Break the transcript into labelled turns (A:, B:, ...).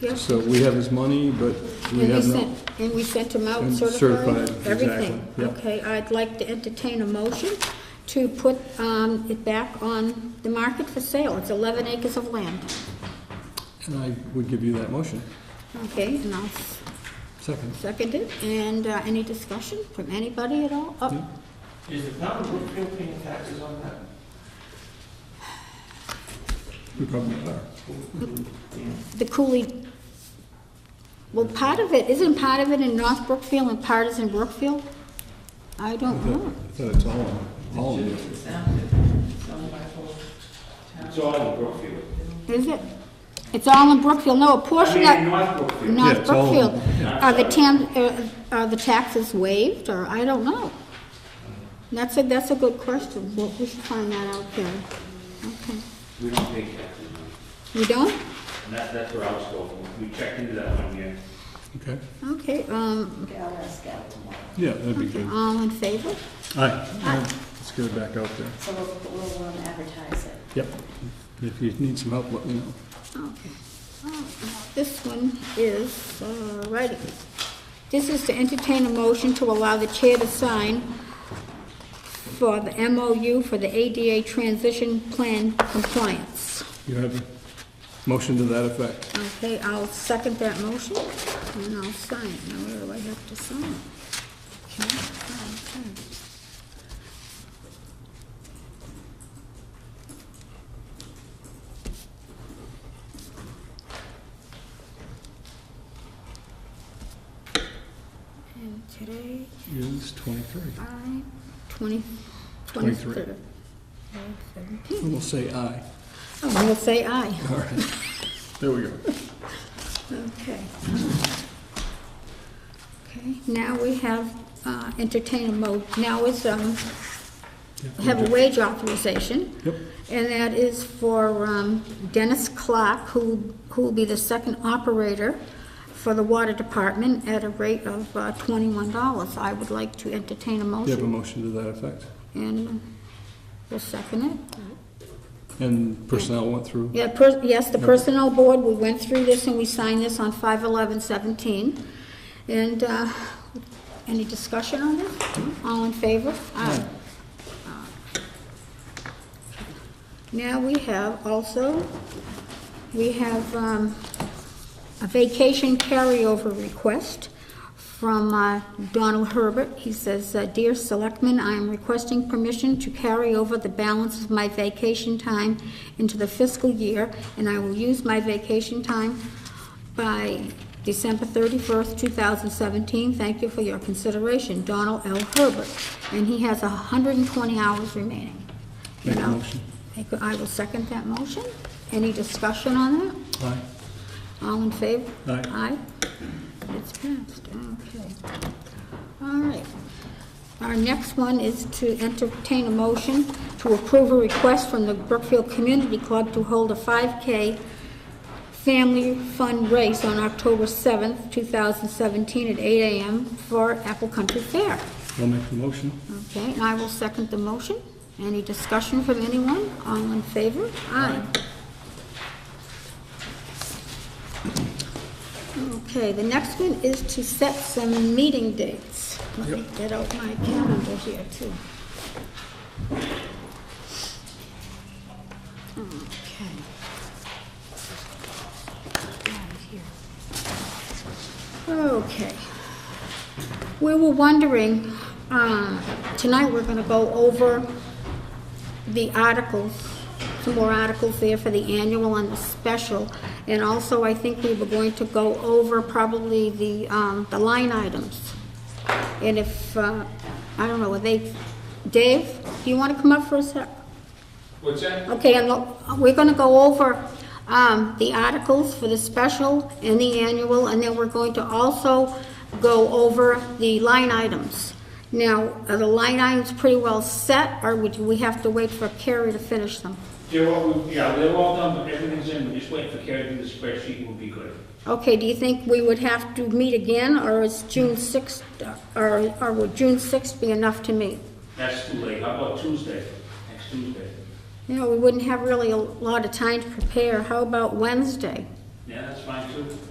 A: Yeah.
B: So we have his money, but we
A: And
B: have no.
A: sent- And we sent them out
B: And
A: certified?
B: certified,
A: Everything?
B: exactly, yeah.
A: Okay, I'd like to entertain a motion to put um, it back on the market for sale. It's 11 acres of land.
B: And I would give you that motion.
A: Okay, and I'll s-
B: Second.
A: second it. And uh, any discussion from anybody at all? Oh,
B: No.
C: Is the town of Brookfield paying taxes on that?
B: We probably are.
A: The Cooley, well, part of it, isn't part of it in North Brookfield and part is in Brookfield? I
B: I
A: don't
B: thought
A: know.
B: I thought it's all, on- all of it.
C: It's all in Brookfield.
A: Is it? It's all in Brookfield? No, a
C: I
A: portion
C: mean,
A: of...
C: in North Brookfield.
B: Yeah,
A: North
B: it's all-
A: Brookfield.
B: yeah.
A: Are the tam, uh, are the taxes waived, or, I don't know. That's a, that's a good question, Well, we should find that out there. Okay.
C: We don't pay taxes. on
A: You don't?
C: it. And that, that's where I was going. We checked into that one year.
B: Okay.
A: Okay, um,
B: Yeah, that'd be
A: okay,
B: good.
A: all in favor?
B: All right, all right, let's get it back out there.
D: So we'll, we'll um, advertise it.
B: Yep. If you need some help, let me know.
A: Okay. Oh, now This one is, uh, righty. This is to entertain a motion to allow the chair to sign for the MOU for the ADA transition plan compliance.
B: You have a motion to that effect.
A: Okay, I'll second that motion, and I'll sign it. Now, where do I have to sign? Okay, okay, okay. And today,
B: Is twenty-three.
A: I, twenty,
B: Twenty-three.
A: twenty-third. Seventeen.
B: And we'll say aye.
A: Oh, we'll say aye.
B: All right. There we go.
A: Okay. Okay, now we have uh, entertain a mo, now it's, um, have a wage authorization.
B: Yep.
A: And that is for um, Dennis Clark, who, who will be the second operator for the water department at a rate of uh, twenty-one dollars. I would like to entertain a
B: You have a
A: motion.
B: motion to that effect.
A: And we'll second it.
B: And personnel went through.
A: Yeah, per, yes, the Personnel Board, we went through this and we signed this on five eleven seventeen. And, uh, any discussion on this? All in favor? Aye. Now we have also, we have, um, a vacation carryover request from uh, Donald Herbert. He says, uh, "Dear Selectmen, I am requesting permission to carry over the balance of my vacation time into the fiscal year, and I will use my vacation time by December 31st, 2017. Thank you for your consideration, Donald L. Herbert." And he has 120 hours remaining.
B: Make a
A: Now,
B: motion.
A: make a- I will second that motion. Any discussion on that?
B: Aye.
A: All in favor?
B: Aye.
A: It's passed, okay. All right. Our next one is to entertain a motion to approve a request from the Brookfield Community Club to hold a 5K Family Fun Race on October 7th, 2017 at 8 a.m. for Apple Country Fair.
B: I'll make the motion.
A: Okay, and I will second the motion. Any discussion from anyone? All in favor? Aye. Okay, the next one is to set some meeting dates. Let me get out my calendar here, too. Okay. Right here. Okay. We were wondering, um, tonight we're going to go over the articles, some more articles there for the annual and the special. And also, I think we were going to go over probably the, um, the line items. And if, uh, I don't know, are they, Dave, do you want to come up for a sec?
C: What's that?
A: Okay, and look, we're gonna go over, um, the articles for the special and the annual, and then we're going to also go over the line items. Now, are the line items pretty well set, or would we have to wait for Carrie to finish them?
C: They're all, yeah, they're all done, but everything's in. We're just waiting for Carrie to do the spreadsheet and we'll be good.
A: Okay, do you think we would have to meet again, or is June sixth, or, or would June sixth be enough to meet?
C: That's too late. How about Tuesday? Next Tuesday?
A: You know, we wouldn't have really a lot of time to prepare, how about Wednesday?
C: Yeah, that's fine too.